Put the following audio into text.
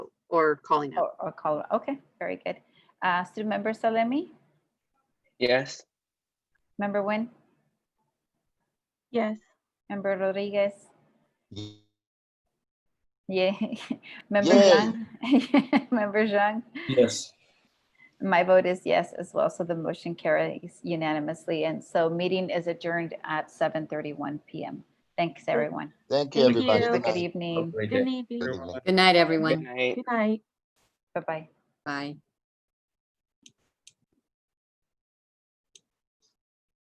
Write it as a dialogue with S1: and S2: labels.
S1: or calling out.
S2: or, or Colorado. Okay, very good. Uh, student member Salemi,
S3: Yes.
S2: member Nguyen,
S4: Yes.
S2: member Rodriguez,
S5: Ye-
S2: yeah, member
S5: Yay.
S2: Zhang, member Zhang.
S6: Yes.
S2: My vote is yes as well, so the motion carries unanimously, and so meeting is adjourned at 7:31 PM. Thanks, everyone.
S5: Thank you,
S4: Thank
S5: everybody.
S4: you.
S2: Have
S5: Good
S2: a Good
S5: night.
S2: evening.
S6: Great day.
S4: Good evening.
S5: Good evening.
S1: Good night,
S3: Good
S1: everyone.
S3: night.
S4: Good night.
S2: Bye-bye.
S1: Bye.